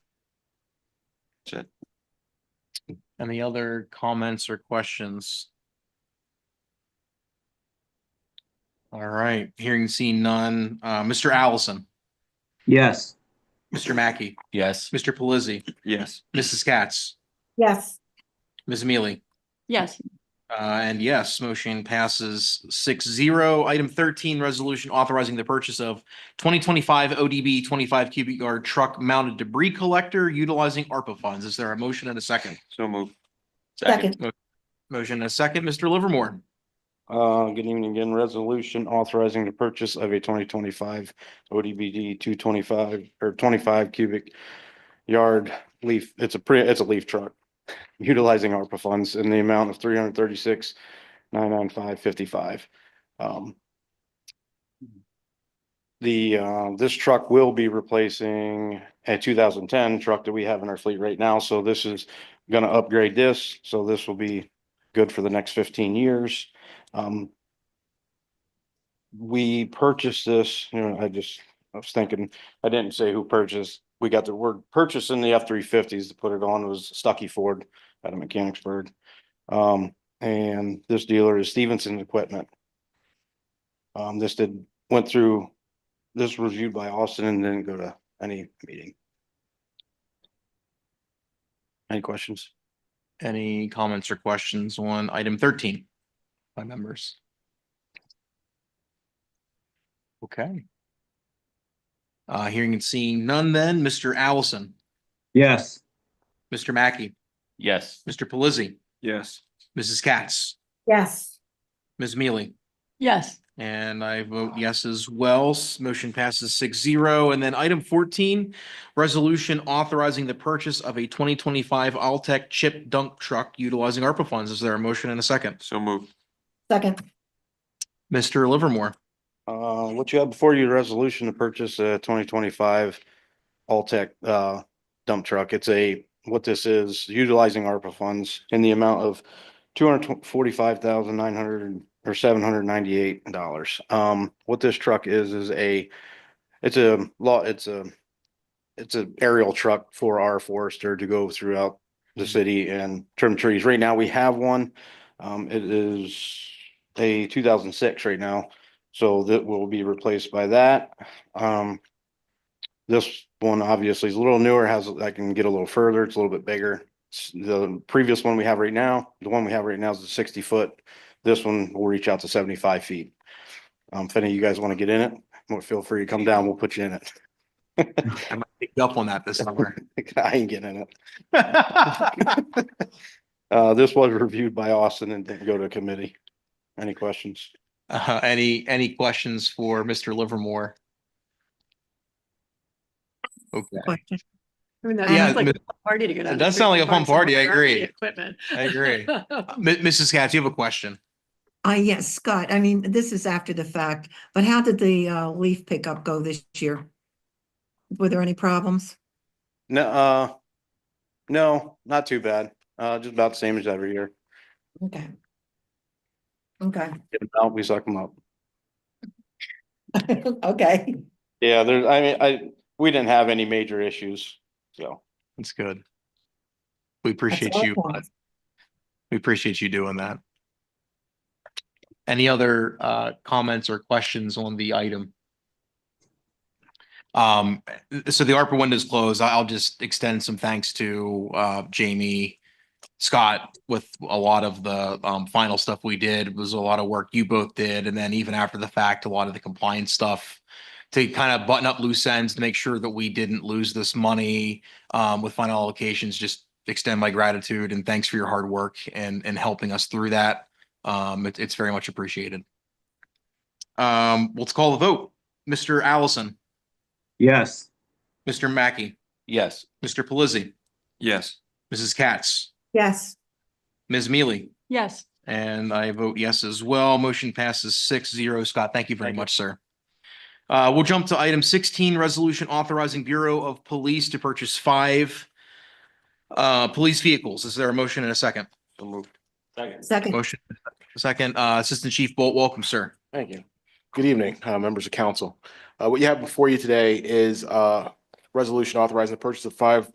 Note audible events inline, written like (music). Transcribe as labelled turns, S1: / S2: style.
S1: That's it.
S2: Any other comments or questions? All right, hearing seen none. Uh, Mr. Allison,
S3: Yes.
S2: Mr. Mackey,
S4: Yes.
S2: Mr. Pelisi,
S1: Yes.
S2: Mrs. Katz,
S5: Yes.
S2: Ms. Mealy.
S5: Yes.
S2: Uh, and yes, motion passes six zero. Item thirteen, resolution authorizing the purchase of twenty twenty-five ODB twenty-five cubic yard truck mounted debris collector utilizing ARPA funds. Is there a motion and a second?
S1: So move.
S5: Second.
S2: Motion and a second, Mr. Livermore.
S6: Uh, good evening again. Resolution authorizing the purchase of a twenty twenty-five ODBD two twenty-five or twenty-five cubic yard leaf. It's a pre, it's a leaf truck utilizing ARPA funds in the amount of three hundred thirty-six, nine nine five fifty-five. Um, the, uh, this truck will be replacing a two thousand ten truck that we have in our fleet right now. So this is gonna upgrade this. So this will be good for the next fifteen years. Um. We purchased this, you know, I just, I was thinking, I didn't say who purchased. We got the word purchase in the F three fifties to put it on was Stucky Ford out of Mechanicsburg. Um, and this dealer is Stevenson Equipment. Um, this did, went through, this was reviewed by Austin and didn't go to any meeting. Any questions?
S2: Any comments or questions on item thirteen by members? Okay. Uh, hearing and seeing none then, Mr. Allison,
S3: Yes.
S2: Mr. Mackey,
S4: Yes.
S2: Mr. Pelisi,
S1: Yes.
S2: Mrs. Katz,
S5: Yes.
S2: Ms. Mealy.
S5: Yes.
S2: And I vote yes as well. S- Motion passes six zero. And then item fourteen, resolution authorizing the purchase of a twenty twenty-five Altech chip dump truck utilizing ARPA funds. Is there a motion and a second?
S1: So move.
S5: Second.
S2: Mr. Livermore,
S6: Uh, what you have before you, resolution to purchase a twenty twenty-five Altech, uh, dump truck. It's a, what this is, utilizing ARPA funds in the amount of two hundred forty-five thousand nine hundred or seven hundred ninety-eight dollars. Um, what this truck is, is a, it's a law, it's a, it's an aerial truck for our forester to go throughout the city and trim trees. Right now, we have one. Um, it is a two thousand six right now. So that will be replaced by that. Um. This one obviously is a little newer, has, I can get a little further, it's a little bit bigger. S- The previous one we have right now, the one we have right now is the sixty foot. This one will reach out to seventy-five feet. Um, if any of you guys want to get in it, well, feel free to come down, we'll put you in it. (laughs)
S2: I might pick you up on that this summer.
S6: I ain't getting in it. Uh, this was reviewed by Austin and didn't go to committee. Any questions?
S2: Uh, any, any questions for Mr. Livermore? Okay,
S7: question. I mean, that
S2: Yeah,
S7: sounds like
S2: mi-
S7: a fun party to go down.
S2: it
S7: to
S2: does
S7: Freedom
S2: sound like a fun
S7: Park somewhere
S2: party, I
S7: without any
S2: agree.
S7: Equipment.
S2: I
S7: (laughs)
S2: agree. Mi- Mrs. Katz, you have a question?
S7: Uh, yes, Scott, I mean, this is after the fact, but how did the uh leaf pickup go this year? Were there any problems?
S6: No, uh, no, not too bad. Uh, just about the same as every year.
S7: Okay. Okay,
S6: Get 'em out, we suck them up.
S7: (laughs) okay.
S6: Yeah, there, I mean, I, we didn't have any major issues, so.
S2: That's good. We appreciate
S7: all
S2: you.
S7: for
S2: uh,
S7: us.
S2: We appreciate you doing that. Any other uh comments or questions on the item? Um, so the ARPA window is closed. I'll just extend some thanks to uh Jamie. Scott, with a lot of the um final stuff we did was a lot of work you both did, and then even after the fact, a lot of the compliance stuff. To kind of button up loose ends, to make sure that we didn't lose this money um, with final allocations, just extend my gratitude and thanks for your hard work and, and helping us through that. Um, it- it's very much appreciated. Um, let's call the vote. Mr. Allison,
S3: Yes.
S2: Mr. Mackey,
S4: Yes.
S2: Mr. Pelisi,
S1: Yes.
S2: Mrs. Katz,
S7: Yes,
S2: Ms. Mealy,
S5: Yes.
S2: and I vote yes as well. Motion passes six zero. Scott, thank you very
S4: Thank you.
S2: much, sir. Uh, we'll jump to item sixteen, resolution authorizing Bureau of Police to purchase five uh, police vehicles. Is there a motion and a second?
S1: So moved.
S7: second,
S2: Motion second, uh, Assistant Chief Bolt, welcome, sir.
S8: Thank you. Good evening, uh, members of council. Uh, What you have before you today is a resolution uh, authorizing the purchase of five